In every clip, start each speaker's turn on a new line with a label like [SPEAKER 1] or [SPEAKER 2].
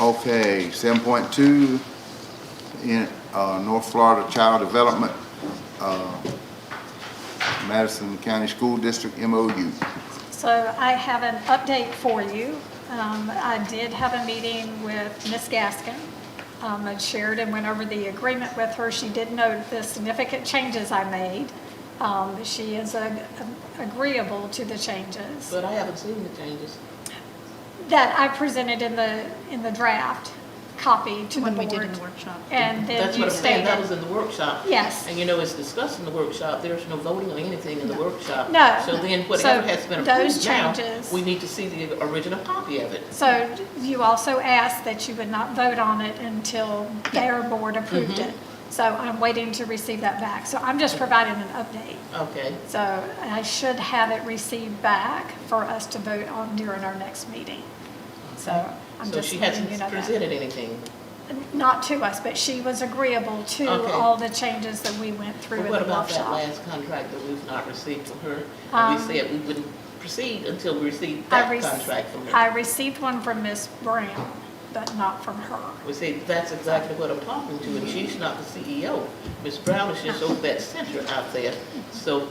[SPEAKER 1] Okay, seven point two, in, uh, North Florida Child Development, uh, Madison County School District MOU.
[SPEAKER 2] So I have an update for you. Um, I did have a meeting with Ms. Gaskin. Um, and Sheridan went over the agreement with her. She did note the significant changes I made. Um, she is ag- agreeable to the changes
[SPEAKER 3] But I haven't seen the changes.
[SPEAKER 2] that I presented in the, in the draft copy to the board.
[SPEAKER 4] When we did in the workshop.
[SPEAKER 2] And
[SPEAKER 3] That's
[SPEAKER 2] then
[SPEAKER 3] what
[SPEAKER 2] you
[SPEAKER 3] I'm saying,
[SPEAKER 2] stated.
[SPEAKER 3] that was in the workshop.
[SPEAKER 2] Yes.
[SPEAKER 3] And you know, it's discussed in the workshop, there's no voting on anything in the workshop.
[SPEAKER 2] No.
[SPEAKER 3] So then
[SPEAKER 2] So
[SPEAKER 3] whatever has been
[SPEAKER 2] those
[SPEAKER 3] approved now,
[SPEAKER 2] changes-
[SPEAKER 3] we need to see the original copy of it.
[SPEAKER 2] So you also asked that you would not vote on it until their board approved
[SPEAKER 3] Mm-hmm.
[SPEAKER 2] it. So I'm waiting to receive that back. So I'm just providing an update.
[SPEAKER 3] Okay,
[SPEAKER 2] So I should have it received back for us to vote on during our next meeting. So I'm
[SPEAKER 3] so
[SPEAKER 2] just
[SPEAKER 3] she
[SPEAKER 2] letting you
[SPEAKER 3] hasn't
[SPEAKER 2] know that.
[SPEAKER 3] presented anything.
[SPEAKER 2] Not to us, but she was agreeable to
[SPEAKER 3] Okay.
[SPEAKER 2] all the changes that we went through
[SPEAKER 3] But
[SPEAKER 2] in
[SPEAKER 3] what
[SPEAKER 2] the
[SPEAKER 3] about that
[SPEAKER 2] workshop.
[SPEAKER 3] last contract that we've not received from her? And
[SPEAKER 2] Um,
[SPEAKER 3] We said we wouldn't proceed until we received
[SPEAKER 2] I
[SPEAKER 3] that
[SPEAKER 2] rec-
[SPEAKER 3] contract from her.
[SPEAKER 2] I received one from Ms. Brown, but not from her.
[SPEAKER 3] We say, that's exactly what I'm talking to, and she's not the CEO. Ms. Brown is just over that center out there. So,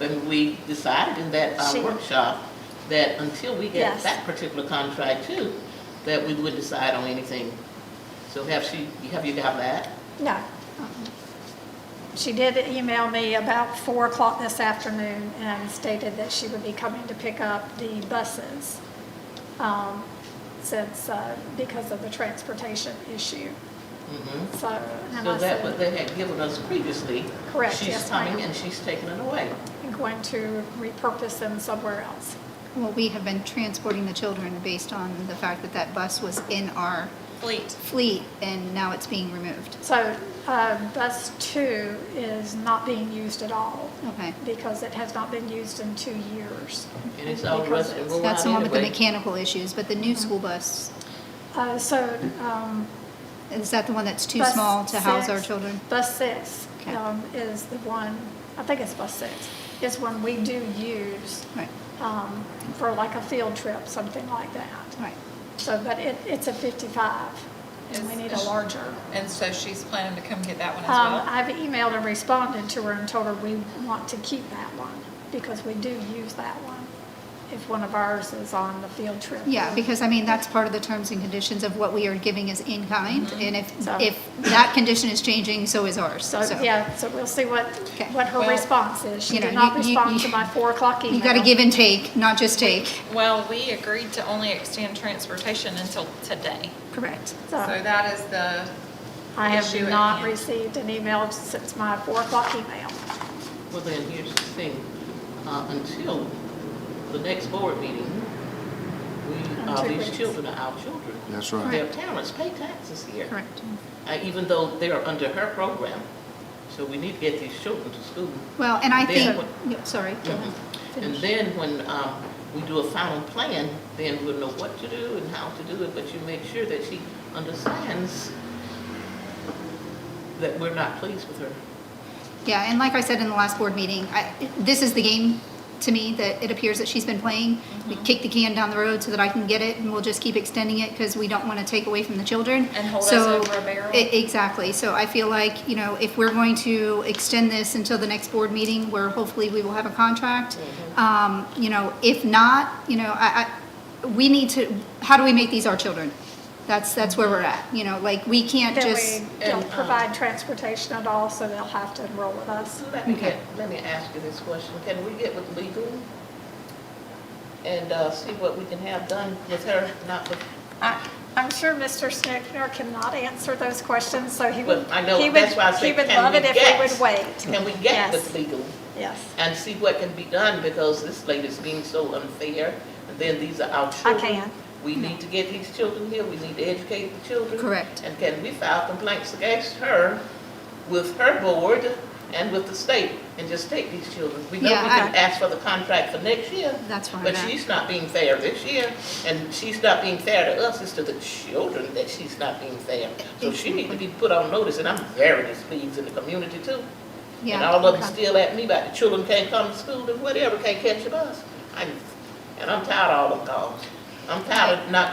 [SPEAKER 3] and we decided in that uh,
[SPEAKER 2] She-
[SPEAKER 3] workshop that until we get
[SPEAKER 2] Yes.
[SPEAKER 3] that particular contract too, that we would decide on anything. So have she, have you got that?
[SPEAKER 2] No. She did email me about four o'clock this afternoon and stated that she would be coming to pick up the buses um, since, uh, because of the transportation issue.
[SPEAKER 3] Mhm.
[SPEAKER 2] So, and
[SPEAKER 3] So
[SPEAKER 2] I
[SPEAKER 3] that
[SPEAKER 2] said,
[SPEAKER 3] what they had given us previously.
[SPEAKER 2] Correct,
[SPEAKER 3] She's
[SPEAKER 2] yes, ma'am.
[SPEAKER 3] coming and she's taking it away.
[SPEAKER 2] I'm going to repurpose them somewhere else.
[SPEAKER 4] Well, we have been transporting the children based on the fact that that bus was in our
[SPEAKER 5] Fleet.
[SPEAKER 4] fleet and now it's being removed.
[SPEAKER 2] So uh, bus two is not being used at all
[SPEAKER 4] Okay.
[SPEAKER 2] because it has not been used in two years.
[SPEAKER 3] And it's all
[SPEAKER 2] Because
[SPEAKER 3] rusted
[SPEAKER 2] it's-
[SPEAKER 3] and rolled
[SPEAKER 4] That's
[SPEAKER 3] out
[SPEAKER 4] the one with the
[SPEAKER 3] anyway.
[SPEAKER 4] mechanical issues, but the new
[SPEAKER 2] Mm-hmm.
[SPEAKER 4] school bus,
[SPEAKER 2] Uh, So um,
[SPEAKER 4] is that the one that's too
[SPEAKER 2] Bus
[SPEAKER 4] small to house our
[SPEAKER 2] six-
[SPEAKER 4] children?
[SPEAKER 2] Bus six
[SPEAKER 4] Okay.
[SPEAKER 2] um, is the one, I think it's bus six, is one we do use
[SPEAKER 4] Right,
[SPEAKER 2] um, for like a field trip, something like that.
[SPEAKER 4] right.
[SPEAKER 2] So, but it, it's a 55, and we
[SPEAKER 5] Is-
[SPEAKER 2] need a larger.
[SPEAKER 5] And so she's planning to come get that one as
[SPEAKER 2] Um,
[SPEAKER 5] well?
[SPEAKER 2] I've emailed and responded to her and told her we want to keep that one, because we do use that one if one of ours is on the field trip.
[SPEAKER 4] Yeah, because I mean, that's part of the terms and conditions of what we are giving is in kind. And if,
[SPEAKER 2] Mm-hmm. So-
[SPEAKER 4] if that condition is changing, so is ours.
[SPEAKER 2] So,
[SPEAKER 4] So
[SPEAKER 2] yeah, so we'll see what,
[SPEAKER 4] Okay.
[SPEAKER 2] what her
[SPEAKER 5] Well,
[SPEAKER 2] response is. She
[SPEAKER 4] you know,
[SPEAKER 2] did not
[SPEAKER 4] you- you-
[SPEAKER 2] respond
[SPEAKER 4] you-
[SPEAKER 2] to my 4 o'clock email.
[SPEAKER 4] you got to give and take, not just take.
[SPEAKER 5] Well, we agreed to only extend transportation until today.
[SPEAKER 4] Correct.
[SPEAKER 5] So
[SPEAKER 2] So-
[SPEAKER 5] that is the,
[SPEAKER 2] I have
[SPEAKER 5] issue at
[SPEAKER 2] not
[SPEAKER 5] hand.
[SPEAKER 2] received an email since my four o'clock email.
[SPEAKER 3] Well, then, here's the thing, uh, until the next board meeting, we, uh,
[SPEAKER 2] two
[SPEAKER 3] these
[SPEAKER 2] weeks.
[SPEAKER 3] children are our children.
[SPEAKER 1] That's right.
[SPEAKER 3] Their parents pay taxes here.
[SPEAKER 4] Correct.
[SPEAKER 3] Uh, even though they're under her program, so we need to get these children to school.
[SPEAKER 4] Well, and I
[SPEAKER 3] They-
[SPEAKER 4] think, no, sorry. go ahead.
[SPEAKER 3] And then when, um, we do a final plan, then we'll know what to do and how to do it, but you make sure that she understands that we're not pleased with her.
[SPEAKER 4] Yeah, and like I said in the last board meeting, I, this is the game to me that it appears that she's been playing. We
[SPEAKER 5] Mm-hmm.
[SPEAKER 4] kick the can down the road so that I can get it, and we'll just keep extending it because we don't want to take away from the children.
[SPEAKER 5] And hold us
[SPEAKER 4] So-
[SPEAKER 5] over a barrel.
[SPEAKER 4] E- Exactly. So I feel like, you know, if we're going to extend this until the next board meeting, where hopefully we will have a contract,
[SPEAKER 5] Mm-hmm.
[SPEAKER 4] um, you know, if not, you know, I, I, we need to, how do we make these our children? That's, that's where we're at, you know, like, we can't
[SPEAKER 2] Then
[SPEAKER 4] just,
[SPEAKER 2] we don't
[SPEAKER 3] and, uh,
[SPEAKER 2] provide transportation at all, so they'll have to enroll with us.
[SPEAKER 3] So let me
[SPEAKER 4] Okay.
[SPEAKER 3] get, let me ask you this question, can we get with legal? And, uh, see what we can have done with her, not with
[SPEAKER 2] I- I'm sure Mr. Snickner cannot answer those questions, so he
[SPEAKER 3] Well,
[SPEAKER 2] would,
[SPEAKER 3] I know,
[SPEAKER 2] he would,
[SPEAKER 3] that's why I
[SPEAKER 2] he
[SPEAKER 3] said,
[SPEAKER 2] would
[SPEAKER 3] can
[SPEAKER 2] love
[SPEAKER 3] we
[SPEAKER 2] it if we
[SPEAKER 3] get-
[SPEAKER 2] would wait.
[SPEAKER 3] Can we get
[SPEAKER 2] Yes.
[SPEAKER 3] with legal
[SPEAKER 2] Yes,
[SPEAKER 3] and see what can be done, because this lady's being so unfair, and then these are our
[SPEAKER 2] I
[SPEAKER 3] children.
[SPEAKER 2] can.
[SPEAKER 3] We need to get these children here, we need to educate the children.
[SPEAKER 4] Correct.
[SPEAKER 3] And can we file complaints against her with her board and with the state, and just take these children? We know we
[SPEAKER 4] Yeah, I-
[SPEAKER 3] can ask for the contract for next year,
[SPEAKER 4] that's where I'm
[SPEAKER 3] but
[SPEAKER 4] at.
[SPEAKER 3] she's not being fair this year, and she's not being fair to us, it's to the children that she's not being fair. So she needs to be put on notice, and I'm very displeased in the community too. And
[SPEAKER 4] Yeah,
[SPEAKER 3] all of them
[SPEAKER 4] okay.
[SPEAKER 3] still at me about the children can't come to school and whatever, can't catch a bus. I- And I'm tired of all them calls. I'm tired of not